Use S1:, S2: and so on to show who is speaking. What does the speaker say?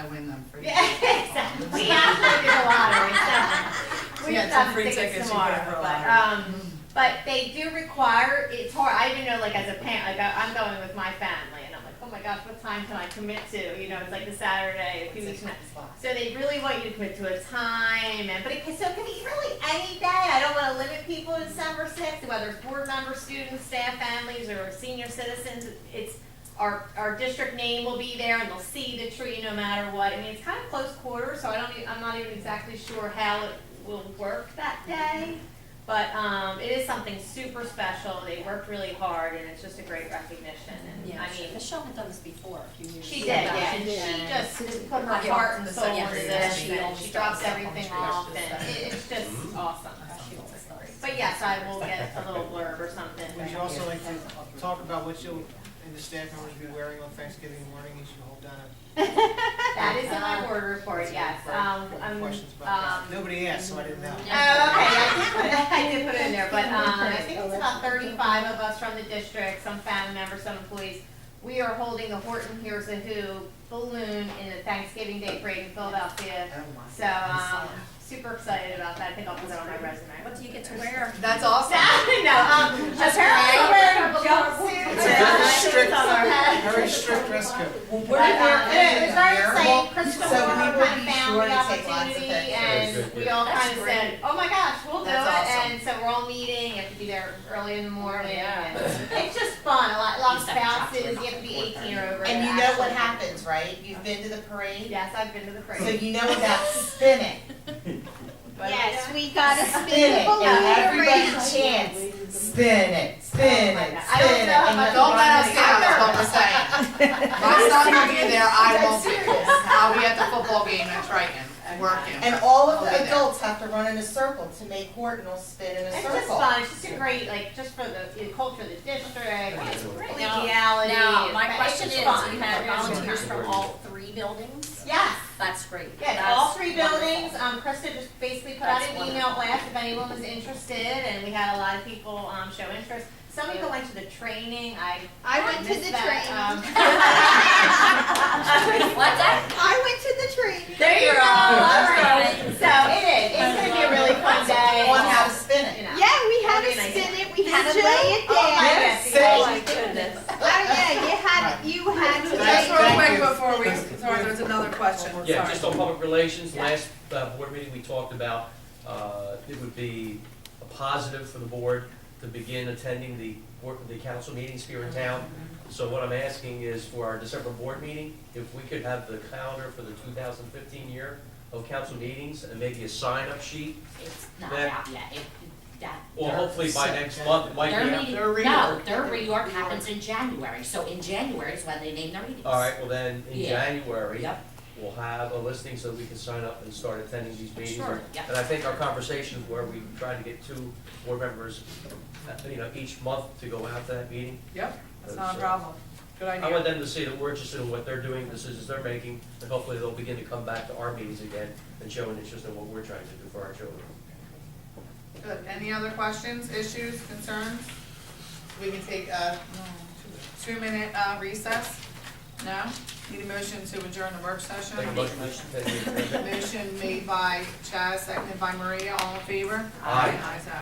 S1: We have to figure the lottery, so.
S2: You
S1: We
S2: got
S1: have
S2: some
S1: some
S2: free
S1: tickets
S2: tickets you can
S1: tomorrow,
S2: throw
S1: but,
S2: lottery.
S1: um, but they do require, it's hard, I even know, like, as a parent, like, I- I'm going with my family, and I'm like, oh my gosh, what time can I commit to, you know, it's like the Saturday, a few weeks now. So they really want you to commit to a time, and, but it can, so it can be really any day, I don't wanna limit people to December sixth, whether it's board members, students, staff, families, or senior citizens, it's, our, our district name will be there, and they'll see the tree no matter what, I mean, it's kinda close quarters, so I don't, e- I'm not even exactly sure how it will work that day, but, um, it is something super special, they worked really hard, and it's just a great recognition, and,
S3: Yeah,
S1: I mean,
S3: Michelle had done this before a few years ago.
S1: she did, yeah,
S3: She
S1: and she just put her
S3: Yeah.
S1: heart and
S3: So,
S1: soul
S3: yeah,
S1: into
S3: pretty
S1: this,
S3: much.
S1: and she drops
S3: Yeah.
S1: everything
S3: Yeah.
S1: off, and it- it's just awesome.
S3: always does.
S1: But yes, I will get a little blurb or something.
S4: Would you also like to talk about what you'll, and the staff members be wearing on Thanksgiving morning, you should hold down a
S1: That is in my board report, yes, um,
S4: couple
S1: I'm,
S4: of
S1: um,
S4: questions about that.
S1: oh, okay,
S4: Nobody asked, so I didn't
S1: I
S4: know.
S1: did put it, I did put it in there, but, um, I think it's about thirty-five of us from the district, some family members, some employees. We are holding the Horton Hears a Who balloon in the Thanksgiving Day parade in Philadelphia. So, um, super excited about that, I think I'll put it on my resume.
S3: What do you get to wear?
S2: That's awesome.
S1: No, um,
S3: Just
S1: apparently we're
S3: hang.
S1: wearing a jumpsuit.
S4: It's a very strict-
S1: on our head.
S4: Very strict dress code.
S2: Well,
S1: But,
S2: we're
S1: um,
S2: there.
S1: it was very exciting, Crystal
S2: so we
S1: Moore
S2: will
S1: kind of
S2: be
S1: found
S2: sure
S1: the
S2: to take lots of
S1: opportunity,
S2: pictures.
S1: and we all
S3: That's
S1: kind of said, oh my gosh, we'll do it,
S2: That's awesome.
S1: and so we're all meeting, you have to be there early in the morning, and it's just fun, a lot, lots of bounces, you have to be eighteen or over. to
S2: And you know what
S1: actually-
S2: happens, right? You've been to the parade,
S1: Yes, I've been to the
S2: so
S1: parade.
S2: you know about spinning.
S1: Yes, we
S2: Gotta spin it, and everybody chants, spin it, spin it,
S1: Oh I don't
S2: spin it.
S1: know how
S2: and you
S1: much-
S2: go
S5: Don't let us
S2: around
S5: down, is
S2: the
S5: what we're saying. If I'm not gonna be there, I won't be. I'll be at the football game in Triton, working.
S2: And all of
S5: Okay,
S2: the
S5: there.
S2: adults have to run in a circle to make Hortonel spin in a
S1: It's
S2: circle.
S1: just fun, it's just a great, like, just for the, the culture of the district,
S3: Now-
S1: collegiality.
S3: Now, my
S1: it's
S3: question is,
S1: just fun.
S3: you had
S1: It's just
S3: volunteers
S1: fun.
S3: from all three buildings?
S1: Yes,
S3: That's great.
S1: yes,
S3: That's
S1: all three
S3: wonderful.
S1: buildings, um, Krista just basically put out
S3: That's
S1: an email blast if anyone was interested, and we had a lot of people, um, show interest. Some people went to the training, I.
S6: I went to
S1: missed
S6: the
S1: that, um,
S6: training.
S3: What that?
S6: I went to the training.
S1: There you go, all right, so it is, it's gonna be a really fun day.
S2: One how to spin it.
S1: You know.
S6: Yeah, we had
S1: Very
S6: to
S1: nice.
S6: spin it. We had to
S3: Did you?
S6: lay it
S1: Oh my
S6: down.
S1: goodness,
S2: Yes.
S1: oh my goodness.
S6: Oh yeah, you had you had to
S5: Just
S6: lay
S5: real
S6: it.
S5: quick before we, sorry, there's another question,
S7: Yeah,
S5: sorry.
S7: just on public relations,
S3: Yeah.
S7: last uh, board meeting, we talked about, uh, it would be a positive for the board to begin attending the, board- the council meetings here in town.
S8: Mm-hmm.
S7: So what I'm asking is for our December board meeting, if we could have the calendar for the 2015 year of council meetings and maybe a sign-up sheet,
S8: It's not
S7: That-
S8: out yet, it, that.
S7: or
S8: their-
S7: hopefully by next month, it might be.
S8: Their
S7: out.
S8: meeting,
S4: Their
S8: no,
S4: reorg.
S8: their reorg happens in January, so in January is when they name their meetings.
S7: All right, well then, in
S8: Yeah.
S7: January,
S8: Yep.
S7: we'll have a listing so we can sign up and start attending these meetings.
S8: Sure, yep.
S7: And I think our conversations where we tried to get two board members, uh, you know, each month to go out to that meeting. uh,
S5: Yep, that's not a problem. Good
S7: I want
S5: idea.
S7: them to see that we're interested in what they're doing, decisions they're making, and hopefully they'll begin to come back to our meetings again and show an interest in what we're trying to do for our children.
S5: Good. Any other questions, issues, concerns? We can take a two-minute uh, recess? No? Need a motion to adjourn the work session?
S7: Take a motion, take a-
S5: Motion made by Chaz, seconded by Maria, all in favor?
S7: Aye.
S5: Ayes have it.